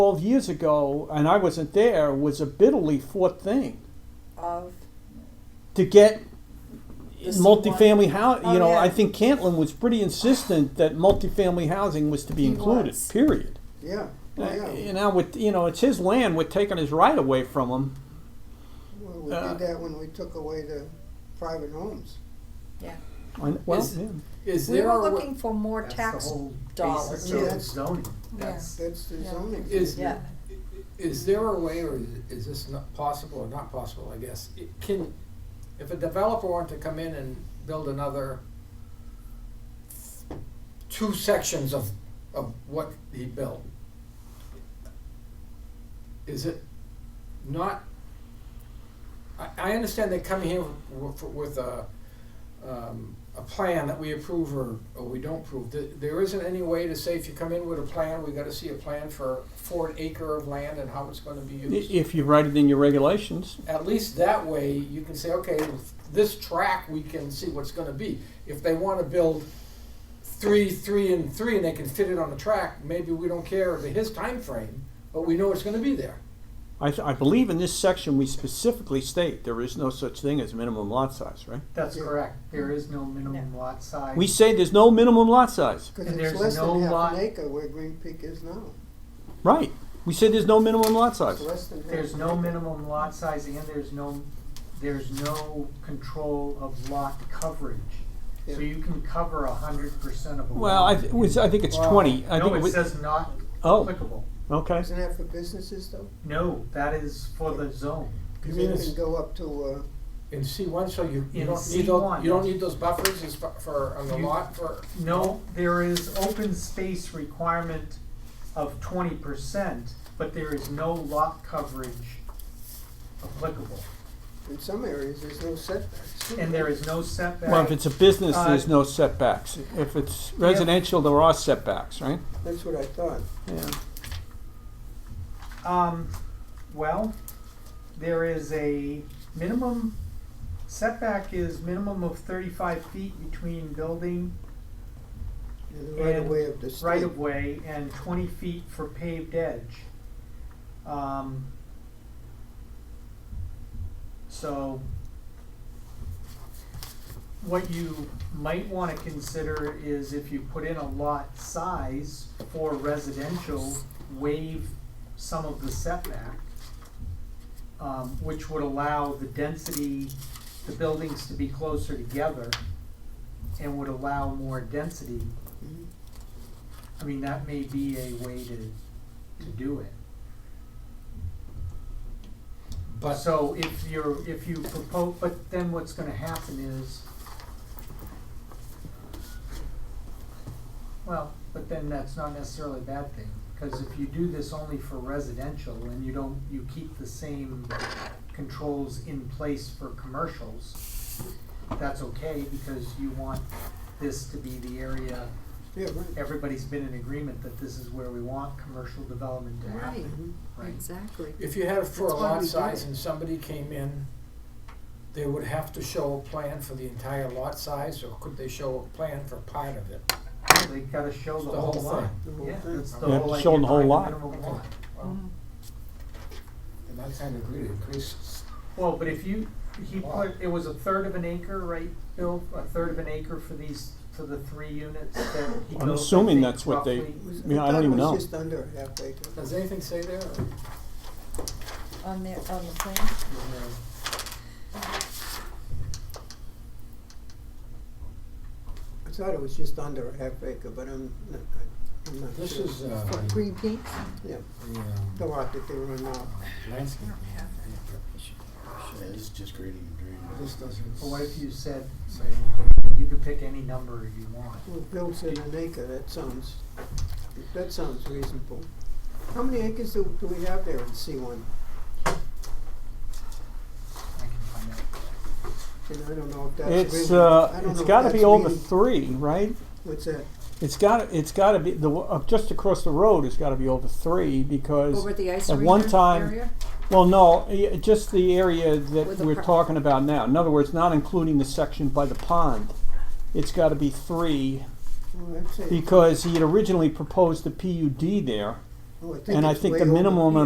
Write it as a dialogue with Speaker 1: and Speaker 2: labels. Speaker 1: 12 years ago, and I wasn't there, was a bitterly fought thing
Speaker 2: of
Speaker 1: to get
Speaker 2: The C1.
Speaker 1: multifamily housing.
Speaker 2: Oh,
Speaker 1: you know,
Speaker 2: yeah.
Speaker 1: I think Cantlin was pretty insistent that multifamily housing was to be
Speaker 2: He
Speaker 1: included,
Speaker 2: was. Oh,
Speaker 1: period.
Speaker 3: Yeah,
Speaker 1: Uh,
Speaker 3: well, yeah.
Speaker 1: You know, with you know, it's his land. We're taking his right away from him.
Speaker 3: Well, we
Speaker 1: uh,
Speaker 3: did that when we took away the private homes.
Speaker 1: I- well,
Speaker 4: Is-
Speaker 1: yeah.
Speaker 4: Is
Speaker 2: we
Speaker 4: there
Speaker 2: were
Speaker 4: a wa-
Speaker 2: looking for more
Speaker 4: That's the
Speaker 2: tax
Speaker 4: whole
Speaker 2: dollars.
Speaker 4: basis of
Speaker 3: Yeah.
Speaker 4: zoning. That's-
Speaker 3: That's the
Speaker 2: Yeah.
Speaker 3: zoning.
Speaker 4: Is,
Speaker 2: Yeah.
Speaker 4: is there a way, or is, is this not possible or not possible, I guess? It Can, if a developer wanted to come in and build another two sections of, of what he built, is it not, I, I understand they come here with, with a, um, a plan that we approve or, or we don't approve. Th- There isn't any way to say if you come in with a plan, we gotta see a plan for, for an acre of land and how it's gonna be
Speaker 1: I-
Speaker 4: used.
Speaker 1: If you write it in your regulations,
Speaker 4: At least that way, you can say, okay, this track, we can see what's gonna be. If they wanna build three, three, and three, and they can fit it on the track, maybe we don't care the his time frame, but we know it's gonna be there.
Speaker 1: I, th- I believe in this section we specifically state there is no such thing as minimum lot size, right?
Speaker 5: That's
Speaker 3: Yeah.
Speaker 5: correct. There is no minimum lot size.
Speaker 1: We say there's no minimum lot size,
Speaker 3: Because
Speaker 5: And
Speaker 3: it's
Speaker 5: there's
Speaker 3: less
Speaker 5: no
Speaker 3: than half
Speaker 5: lot-
Speaker 3: an acre where Green Peak is now.
Speaker 1: right? We say there's no minimum lot
Speaker 3: It's
Speaker 1: size.
Speaker 3: less than half
Speaker 5: There's
Speaker 3: an
Speaker 5: no
Speaker 3: acre.
Speaker 5: minimum lot size and there's no, there's no control of lot coverage. So
Speaker 3: Yeah.
Speaker 5: you can cover a hundred percent of a lot.
Speaker 1: Well, I, th- it was, I think it's
Speaker 4: Wow.
Speaker 1: 20. I
Speaker 5: No,
Speaker 1: think
Speaker 5: it
Speaker 1: was,
Speaker 5: says not
Speaker 1: oh,
Speaker 5: applicable.
Speaker 1: okay.
Speaker 3: Isn't that for businesses though?
Speaker 5: No, that is for the zone.
Speaker 3: Because
Speaker 4: mean
Speaker 3: you
Speaker 4: it's-
Speaker 3: can go up to, uh,
Speaker 4: In C one, so you, you
Speaker 5: In
Speaker 4: don't need those,
Speaker 5: C1.
Speaker 4: you don't need those buffers as fa- for, on the
Speaker 5: You-
Speaker 4: lot for,
Speaker 5: No, there is open space requirement of twenty percent, but there is no lot coverage applicable.
Speaker 3: in some areas, there's no setbacks. too.
Speaker 5: And there is no setback.
Speaker 1: Well, if it's a business,
Speaker 5: Uh,
Speaker 1: there's no setbacks. If it's residential, there are setbacks, right?
Speaker 3: That's what I thought.
Speaker 1: Yeah.
Speaker 5: Um, well, there is a minimum, setback is minimum of thirty-five feet between building
Speaker 3: You're the right
Speaker 5: And
Speaker 3: away of the state.
Speaker 5: right-of-way and twenty feet for paved edge. Um, so, what you might wanna consider is if you put in a lot size for residential, waive some of the setback, um, which would allow the density, the buildings to be closer together and would allow more density.
Speaker 3: Mhm.
Speaker 5: I mean, that may be a way to, to do it.
Speaker 4: but.
Speaker 5: So if you're, if you propose, but then what's gonna happen is, well, but then that's not necessarily a bad thing, cause if you do this only for residential and you don't, you keep the same controls in place for commercials, that's okay, because you want this to be the area
Speaker 3: Yeah, right.
Speaker 5: everybody's been in agreement that this is where we want commercial development to happen,
Speaker 3: Mhm.
Speaker 5: right?
Speaker 2: exactly.
Speaker 4: If you had it for a
Speaker 3: That's why we
Speaker 4: lot
Speaker 3: did
Speaker 4: size
Speaker 3: it.
Speaker 4: and somebody came in, they would have to show a plan for the entire lot size, or could they show a plan for part of it?
Speaker 5: They gotta show the
Speaker 4: The
Speaker 5: whole
Speaker 4: whole
Speaker 5: lot.
Speaker 3: The whole
Speaker 5: Yeah,
Speaker 3: thing.
Speaker 5: that's the
Speaker 1: You have
Speaker 5: whole
Speaker 1: to
Speaker 5: idea
Speaker 1: show 'em the whole
Speaker 5: behind
Speaker 1: lot.
Speaker 5: minimum lot.
Speaker 2: Mm-hmm.
Speaker 4: Well, And I kind of agree, Chris,
Speaker 5: Well, but if you, he
Speaker 4: Wow.
Speaker 5: put, it was a third of an acre, right, Bill? A third of an acre for these, for the three units that he
Speaker 1: I'm
Speaker 5: built, I
Speaker 1: assuming
Speaker 5: think,
Speaker 1: that's what they-
Speaker 5: roughly.
Speaker 3: It was-
Speaker 1: I mean, I
Speaker 3: thought
Speaker 1: don't even
Speaker 3: It
Speaker 1: know.
Speaker 3: was just under a half acre.
Speaker 4: does anything say there? or-
Speaker 2: On the, on the plan,
Speaker 3: I thought it was just under a half acre, but I'm not, I'm not
Speaker 4: This
Speaker 3: sure.
Speaker 4: is, uh,
Speaker 2: for Green Peak?
Speaker 3: Yeah,
Speaker 4: the, um,
Speaker 3: the lot that they run now.
Speaker 4: landscape.
Speaker 6: Yeah, this is just grading and draining.
Speaker 4: This doesn't
Speaker 5: But what if you said,
Speaker 4: say anything.
Speaker 5: you could pick any number you want?
Speaker 3: Well, Bill said an acre, that sounds, that sounds reasonable. How many acres do, do we have there in C one?
Speaker 5: I can find out.
Speaker 3: And I don't know if that's
Speaker 1: It's,
Speaker 3: reasonable. I
Speaker 1: uh,
Speaker 3: don't know
Speaker 1: it's
Speaker 3: if
Speaker 1: gotta
Speaker 3: that's
Speaker 1: be over
Speaker 3: reason-
Speaker 1: three, right?
Speaker 3: What's that?
Speaker 1: It's gotta, it's gotta be, the, w- uh, just across the road, it's gotta be over three because.
Speaker 2: Over the ice
Speaker 1: At
Speaker 2: arena
Speaker 1: one time-
Speaker 2: area?
Speaker 1: Well, no, y- just the area that
Speaker 2: With the
Speaker 1: we're
Speaker 2: par-
Speaker 1: talking about now. In other words, not including the section by the pond. It's gotta be three,
Speaker 3: Well, I'd say,
Speaker 1: because he had originally proposed a PUD there,
Speaker 3: Oh, I think
Speaker 1: And I
Speaker 3: it's
Speaker 1: think
Speaker 3: way
Speaker 1: the
Speaker 3: over.
Speaker 1: minimum